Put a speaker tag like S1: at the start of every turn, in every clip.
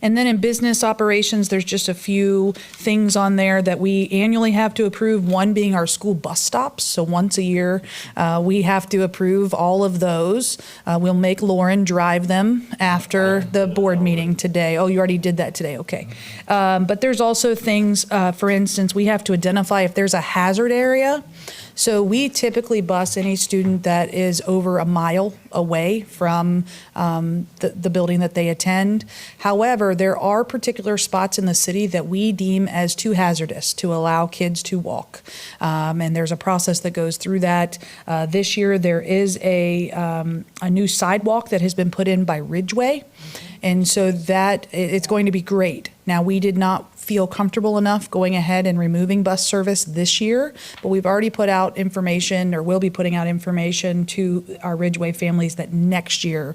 S1: And then in business operations, there's just a few things on there that we annually have to approve, one being our school bus stops. So once a year, uh, we have to approve all of those. Uh, We'll make Lauren drive them after the board meeting today. Oh, you already did that today, okay. Um, But there's also things, uh, for instance, we have to identify if there's a hazard area. So we typically bus any student that is over a mile away from um, the, the building that they attend. However, there are particular spots in the city that we deem as too hazardous to allow kids to walk. Um, and there's a process that goes through that. Uh, this year, there is a, um, a new sidewalk that has been put in by Ridgeway. And so that i- it's going to be great. Now, we did not feel comfortable enough going ahead and removing bus service this year, but we've already put out information or will be putting out information to our Ridgeway families that next year,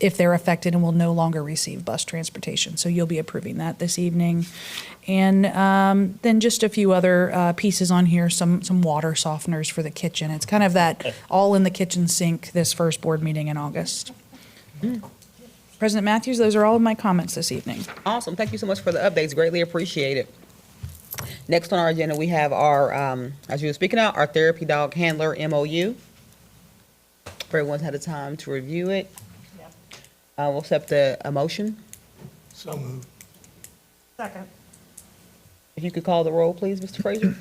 S1: if they're affected and will no longer receive bus transportation. So you'll be approving that this evening. And um, then just a few other uh, pieces on here, some, some water softeners for the kitchen. It's kind of that all in the kitchen sink this first board meeting in August. President Matthews, those are all of my comments this evening.
S2: Awesome. Thank you so much for the updates. Greatly appreciate it. Next on our agenda, we have our, um, as you were speaking out, our therapy dog handler MOU. Everyone's had a time to review it. Uh, we'll accept the a motion.
S3: So moved.
S4: Second.
S2: If you could call the roll, please, Mr. Frazier?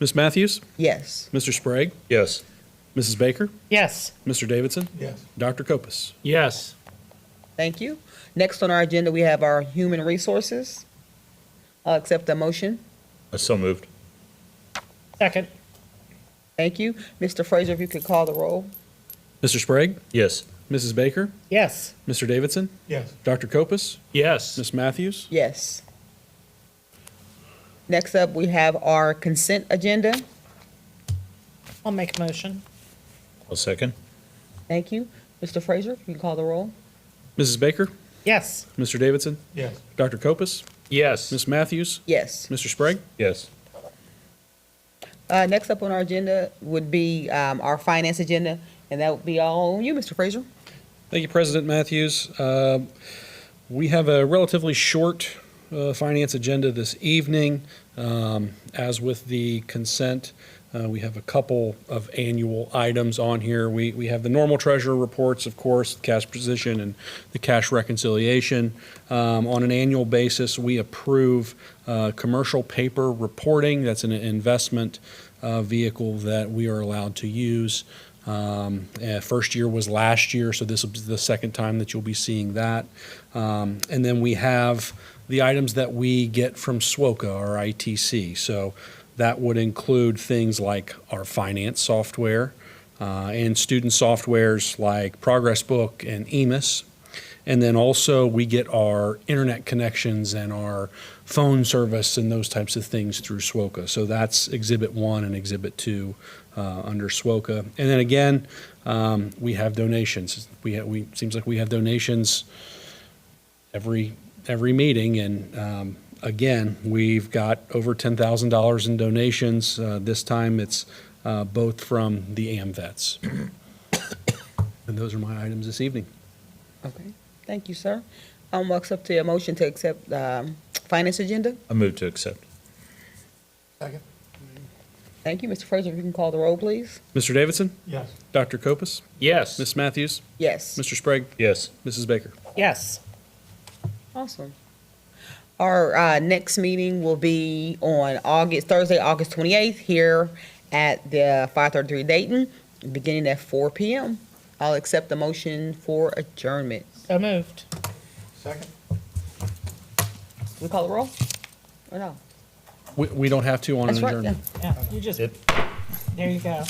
S5: Ms. Matthews,
S2: Yes.
S5: Mr. Sprague,
S6: Yes.
S5: Mrs. Baker,
S4: Yes.
S5: Mr. Davidson,
S3: Yes.
S5: Dr. Kopus.
S6: Yes.
S2: Thank you. Next on our agenda, we have our human resources. I'll accept the motion.
S6: So moved.
S4: Second.
S2: Thank you. Mr. Frazier, if you could call the roll?
S5: Mr. Sprague,
S6: Yes.
S5: Mrs. Baker,
S4: Yes.
S5: Mr. Davidson,
S3: Yes.
S5: Dr. Kopus,
S6: Yes.
S5: Ms. Matthews,
S2: Yes. Next up, we have our consent agenda.
S4: I'll make a motion.
S6: I'll second.
S2: Thank you. Mr. Frazier, you can call the roll.
S5: Mrs. Baker,
S4: Yes.
S5: Mr. Davidson,
S3: Yes.
S5: Dr. Kopus,
S6: Yes.
S5: Ms. Matthews,
S2: Yes.
S5: Mr. Sprague,
S6: Yes.
S2: Uh, next up on our agenda would be, um, our finance agenda, and that would be all on you, Mr. Frazier.
S5: Thank you, President Matthews. Uh, We have a relatively short uh, finance agenda this evening. Um, As with the consent, uh, we have a couple of annual items on here. We we have the normal treasurer reports, of course, cash position and the cash reconciliation. Um, On an annual basis, we approve uh, commercial paper reporting. That's an investment uh, vehicle that we are allowed to use. Um, eh, First year was last year, so this will be the second time that you'll be seeing that. Um, And then we have the items that we get from SWOCA or ITC. So that would include things like our finance software uh, and student softwares like Progress Book and EMIS. And then also, we get our internet connections and our phone service and those types of things through SWOCA. So that's Exhibit 1 and Exhibit 2 uh, under SWOCA. And then again, um, we have donations. We, ha- we, seems like we have donations every, every meeting. And um, again, we've got over $10,000 in donations. Uh, This time, it's uh, both from the AMVets. And those are my items this evening.
S2: Okay. Thank you, sir. Um, walks up to a motion to accept, um, finance agenda.
S6: I move to accept.
S3: Second?
S2: Thank you, Mr. Frazier, if you can call the roll, please.
S5: Mr. Davidson?
S3: Yes.
S5: Dr. Kopus,
S6: Yes.
S5: Ms. Matthews,
S2: Yes.
S5: Mr. Sprague,
S6: Yes.
S5: Mrs. Baker.
S4: Yes.
S2: Awesome. Our uh, next meeting will be on August, Thursday, August 28th, here at the 533 Dayton, beginning at 4 PM. I'll accept the motion for adjournment.
S4: So moved.
S3: Second?
S2: We call the roll? Or no?
S5: We, we don't have to on an
S2: That's right, yeah.
S5: adjournment.
S4: Yeah, you just, there you go.